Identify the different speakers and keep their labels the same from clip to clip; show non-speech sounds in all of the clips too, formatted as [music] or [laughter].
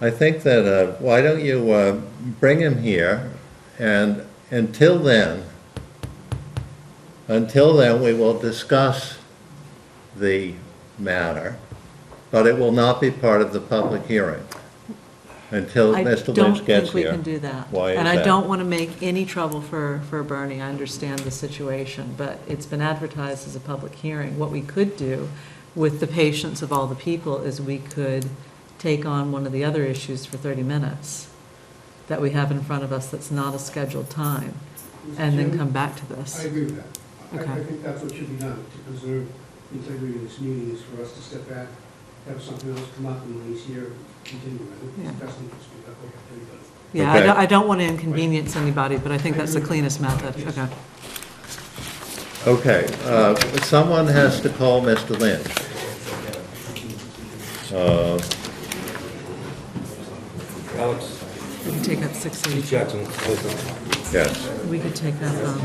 Speaker 1: I think that, uh, why don't you uh, bring him here, and until then, until then, we will discuss the matter, but it will not be part of the public hearing until
Speaker 2: I
Speaker 1: Mr.
Speaker 2: don't
Speaker 1: Lynch gets
Speaker 2: think we
Speaker 1: here.
Speaker 2: can do that.
Speaker 1: Why is
Speaker 2: And I
Speaker 1: that?
Speaker 2: don't want to make any trouble for, for Bernie, I understand the situation, but it's been advertised as a public hearing. What we could do, with the patience of all the people, is we could take on one of the other issues for 30 minutes that we have in front of us that's not a scheduled time, and then come back to
Speaker 3: I
Speaker 2: this.
Speaker 3: agree with that. I- I
Speaker 2: Okay.
Speaker 3: think that's what should be done, to preserve the integrity of this meeting, is for us to step back, have something else come up, and when he's here, continue. I think
Speaker 2: Yeah.
Speaker 3: it's best interest of everybody.
Speaker 2: Yeah, I don't,
Speaker 1: Okay.
Speaker 2: I don't want to inconvenience anybody, but I think that's the cleanest method, okay.
Speaker 1: Okay, uh, someone has to call Mr. Lynch. Uh,
Speaker 4: Alex,
Speaker 2: We could take up 682.
Speaker 4: Jackson, listen.
Speaker 1: Yes,
Speaker 2: We could take up um,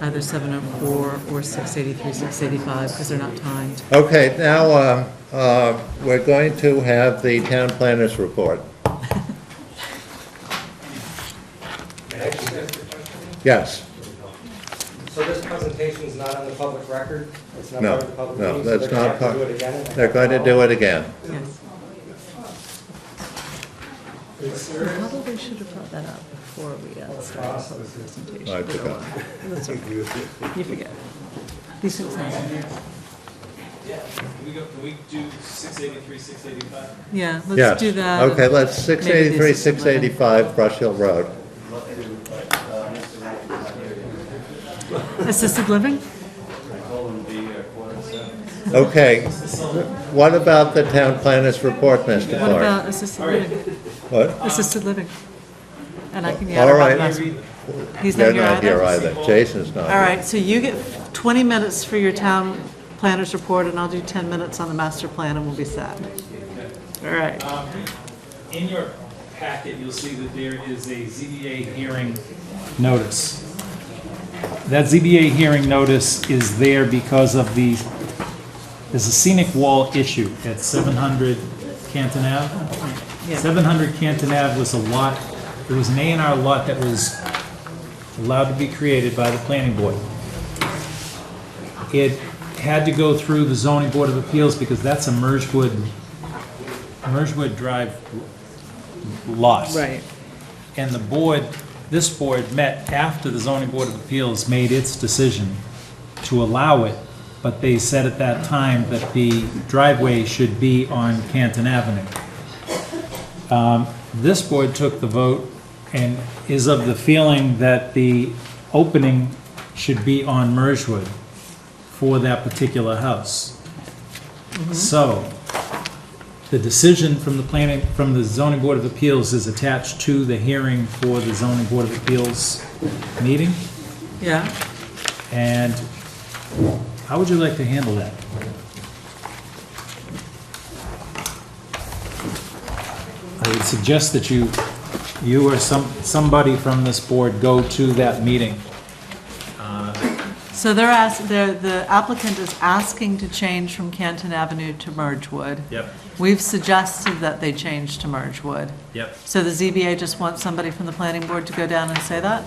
Speaker 2: either 704 or 683, 685, because they're not timed.
Speaker 1: okay, now, uh, uh, we're going to have the town planners report. Yes,
Speaker 4: So this presentation is not on the public record? It's not
Speaker 1: no,
Speaker 4: part of the public
Speaker 1: no,
Speaker 4: meeting, so
Speaker 1: that's
Speaker 4: they're
Speaker 1: not
Speaker 4: gonna have
Speaker 1: part,
Speaker 4: to do it again? and-
Speaker 1: they're going to do it again.
Speaker 2: Yes. Probably should have brought that up before we uh, started the public presentation. uh,
Speaker 1: I forgot.
Speaker 2: That's all right. You forget. These things happen.
Speaker 5: Can we go, can we do six eighty-three, six eighty-five?
Speaker 2: Yeah,
Speaker 1: Yes.
Speaker 2: let's do that.
Speaker 1: Okay, let's,
Speaker 2: Maybe this
Speaker 1: 683,
Speaker 2: is something.
Speaker 1: 685 Brush Hill Road.
Speaker 2: Assisted living?
Speaker 1: Okay, what about the town planners report, Mr.
Speaker 2: What
Speaker 1: Clark?
Speaker 2: about assisted living?
Speaker 1: What?
Speaker 2: Assisted living. And I can, yeah,
Speaker 1: All
Speaker 2: I
Speaker 1: right.
Speaker 2: last one. He's
Speaker 1: They're
Speaker 2: not here
Speaker 1: not here
Speaker 2: either?
Speaker 1: either, Jason's not
Speaker 2: All
Speaker 1: here.
Speaker 2: right, so you get 20 minutes for your town planner's report, and I'll do 10 minutes on the master plan, and we'll be set. All right.
Speaker 5: Um, In your packet, you'll see that there is a ZBA hearing notice. That ZBA hearing notice is there because of the, there's a scenic wall issue at seven hundred Canton Ave.
Speaker 2: Yeah,
Speaker 5: Seven hundred Canton Ave was a lot, it was an A and R lot that was allowed to be created by the planning board. It had to go through the zoning board of appeals because that's a Merjwood, Merjwood Drive lot.
Speaker 2: right.
Speaker 5: And the board, this board met after the zoning board of appeals made its decision to allow it, but they said at that time that the driveway should be on Canton Avenue. Um, This board took the vote and is of the feeling that the opening should be on Merjwood for that particular house. So, the decision from the planning, from the zoning board of appeals is attached to the hearing for the zoning board of appeals meeting,
Speaker 2: Yeah,
Speaker 5: and how would you like to handle that? I would suggest that you, you or some, somebody from this board go to that meeting.
Speaker 2: so they're ask, they're, the applicant is asking to change from Canton Avenue to Mergewood.
Speaker 5: Yep,
Speaker 2: We've suggested that they change to Mergewood.
Speaker 5: yep.
Speaker 2: So the ZBA just wants somebody from the planning board to go down and say that?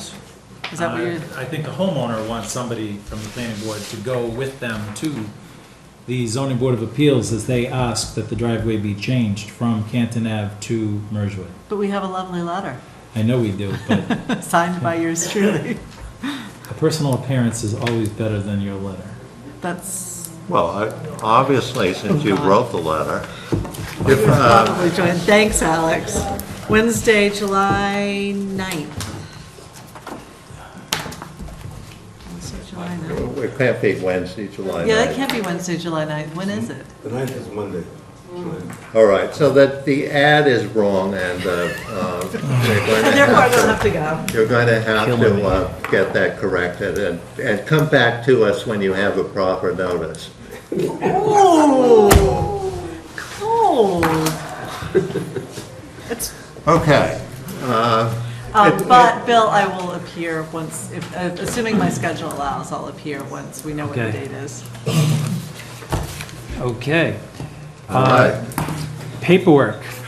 Speaker 2: Is that what
Speaker 5: Uh,
Speaker 2: you're,
Speaker 5: I think the homeowner wants somebody from the planning board to go with them to the zoning board of appeals as they ask that the driveway be changed from Canton Ave to Merjwood.
Speaker 2: but we have a lovely letter, [laughs]
Speaker 5: I know we do, but
Speaker 2: signed by yours truly.
Speaker 5: a personal appearance is always better than your letter.
Speaker 2: That's
Speaker 1: Well, I- obviously, since you wrote the letter, if, uh,
Speaker 2: Probably join. Thanks, Alex. Wednesday, July 9th. Wednesday, July 9th.
Speaker 1: it can't be Wednesday, July
Speaker 2: Yeah, that
Speaker 1: 9th.
Speaker 2: can't be Wednesday, July 9th. When is it?
Speaker 4: The ninth is Monday.
Speaker 1: All right, so that the ad is wrong, and uh, uh, you're going to
Speaker 2: Therefore, I
Speaker 1: have
Speaker 2: don't
Speaker 1: to-
Speaker 2: have to go.
Speaker 1: you're going to have
Speaker 5: Killing
Speaker 1: to
Speaker 5: me.
Speaker 1: uh, get that corrected, and and come back to us when you have a proper notice.
Speaker 2: Oh, cold. It's,
Speaker 1: Okay.
Speaker 2: um, but Bill, I will appear once, if, uh, assuming my schedule allows, I'll appear once we know what the
Speaker 5: Okay.
Speaker 2: date is.
Speaker 5: Okay.
Speaker 1: All right.
Speaker 5: Paperwork